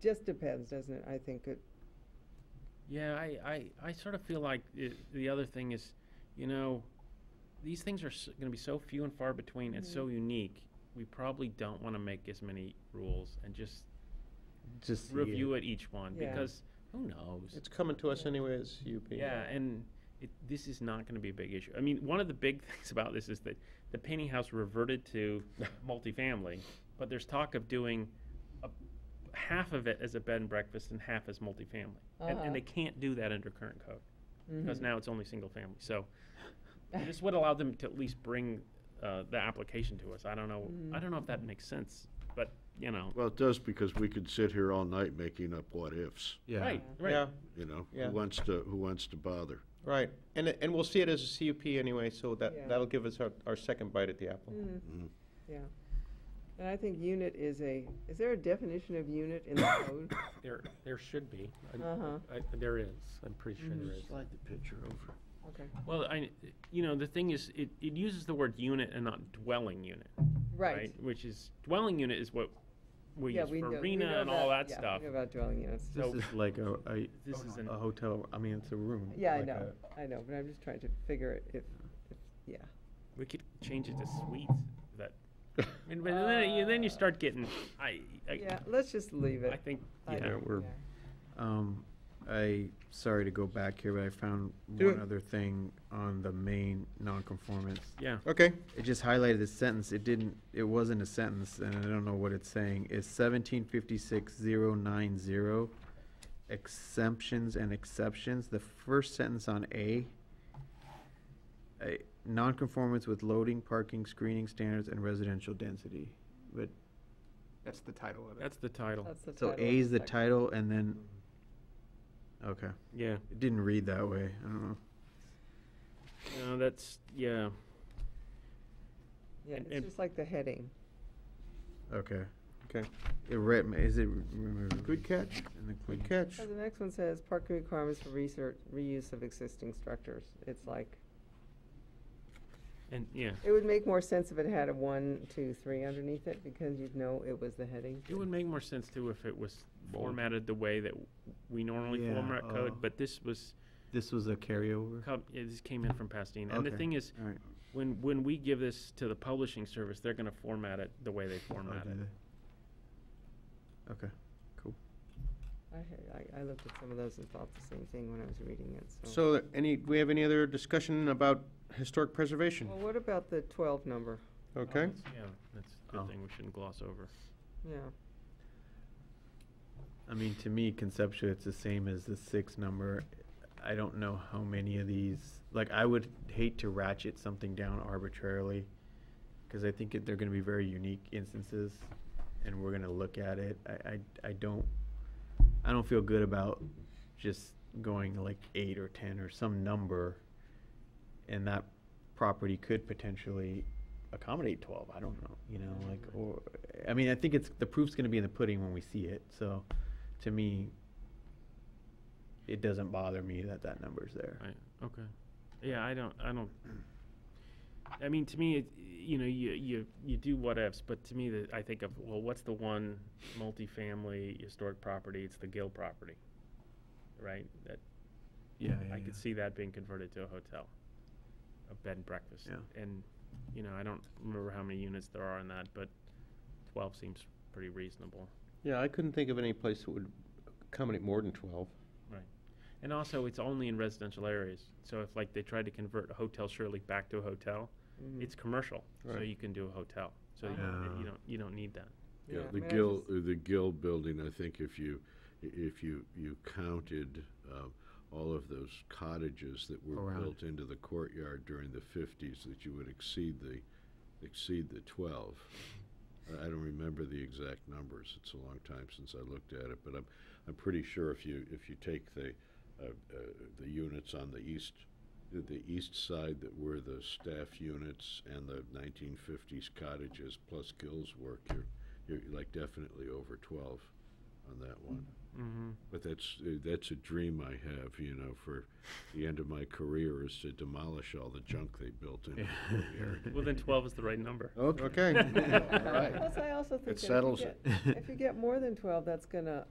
just depends, doesn't it? I think it, Yeah, I, I, I sort of feel like it, the other thing is, you know, these things are s going to be so few and far between. It's Mm-hmm. so unique. We probably don't want to make as many rules and just Just review it each one Yeah. because who knows? It's coming to us anyways, UP. yeah, and it, this is not going to be a big issue. I mean, one of the big things about this is that the Penny House reverted to multifamily, but there's talk of doing a, half of it as a bed and breakfast and half as multifamily, and, Uh-huh. and they can't do that under current code Mm-hmm. because now it's only single family. So this would allow them to at least bring uh, the application to us. I don't know. Mm-hmm. I don't know if that makes sense, but you know, Well, it does because we could sit here all night making up what ifs, Yeah. right, right. Yeah, you know? Yeah. Who wants to, who wants to bother? right. And, it- and we'll see it as a CUP anyway, so Yeah. Mm. that, that'll give us our, our second bite at the apple. Mm-hmm. yeah. And I think unit is a, is there a definition of unit in the code? There, there should be. I- Uh-huh. I- There is, I'm pretty sure Mm-hmm. there is. Slide the picture over. Okay. Well, I, you know, the thing is, it, it uses the word unit and not dwelling unit, Right. Which is dwelling unit is what we Yeah, use we for know- we arena know and all about- that yeah, we stuff. know About dwelling units. So- This is like a, a, This is an- a hotel, I mean, it's a room. Yeah, I like know, a- I know, but I'm just trying to figure it, if, if, yeah. We could change it to suite. That, and, but then, you, then you start getting. I, I, Yeah, let's just leave it. I think. I- yeah. Yeah, we're, yeah. um, I, sorry to go back here, but I found Do one it. other thing on the main nonconformance. Yeah. Okay, It just highlighted this sentence, it didn't, it wasn't a sentence, and I don't know what it's saying. It's seventeen fifty-six zero nine zero, exemptions and exceptions. The first sentence on A, a nonconformance with loading, parking, screening standards, and residential density. But, That's the title of it. That's the title. That's the so title A of is the section. title, and then, okay. yeah. It didn't read that way, I don't know. No, that's yeah. Yeah, and- it's and- just like the heading. Okay. Okay. It read, is it? removed good catch, in the good clean? catch. So the next one says parking requirements for research, reuse of existing structures. It's like, And yeah. it would make more sense if it had a one, two, three underneath it, because you'd know it was the heading. It would make more sense too if it was Bold. formatted the way that we normally Yeah, format code, uh, but this was This was a carryover? com- yeah, this came in from Pasadena. And the Okay. thing is, All right. when when we give this to the publishing service, they're going to format it the way they format it. Okay, cool. I, had- I, I looked at some of those and thought the same thing when I was reading it, so. So, any, do we have any other discussion about historic preservation? Well, what about the twelve number? Oh, Okay, that's- Yeah, that's a good Oh. thing we shouldn't gloss over. Yeah, I mean, to me, conceptually, it's the same as the six number. I don't know how many of these, like, I would hate to ratchet something down arbitrarily, because I think it- they're gonna be very unique instances, and we're gonna look at it. I, I, I don't, I don't feel good about just going like eight or ten or some number, and that property could potentially accommodate twelve, I don't know, you know, like, or, I mean, I think it's, the proof's gonna be in the pudding when we see it, so, to me, it doesn't bother me that that number's there. Right. Okay. Yeah, I don't. I don't. I mean, to me, it, you know, you you you do what ifs, but to me, the, I think of well, what's the one multifamily historic property? It's the Gill property, right? That Yeah, I could see that being converted to a hotel, a bed and breakfast. Yeah. And, you know, I don't remember how many units there are in that, but twelve seems pretty reasonable. yeah, I couldn't think of any place that would accommodate more than twelve. And also, it's only in residential areas. So if like they tried to convert a hotel Shirley back to a hotel, Mhm. it's commercial, so Right. you can do a hotel. So you, Mm. Ah. you don't you don't need that. Yeah, I the mean, I Gill, just- the Gill building, I think if you, if you, you counted um, all of those cottages that were Around. built into the courtyard during the fifties, that you would exceed the, exceed the twelve. I- I don't remember the exact numbers, it's a long time since I looked at it, but I'm, I'm pretty sure if you, if you take the, uh, uh, the units on the east, the- the east side that were the staff units and the nineteen fifties cottages plus Gill's work, you're, you're like definitely over twelve on that one. Mm-hmm. But that's, uh, that's a dream I have, you know, for the end of my career is to demolish all the junk they built in. the courtyard. Well, then twelve is the right number. Okay. All right. Plus, I also think that if you settles get- it. If you get more than twelve, that's gonna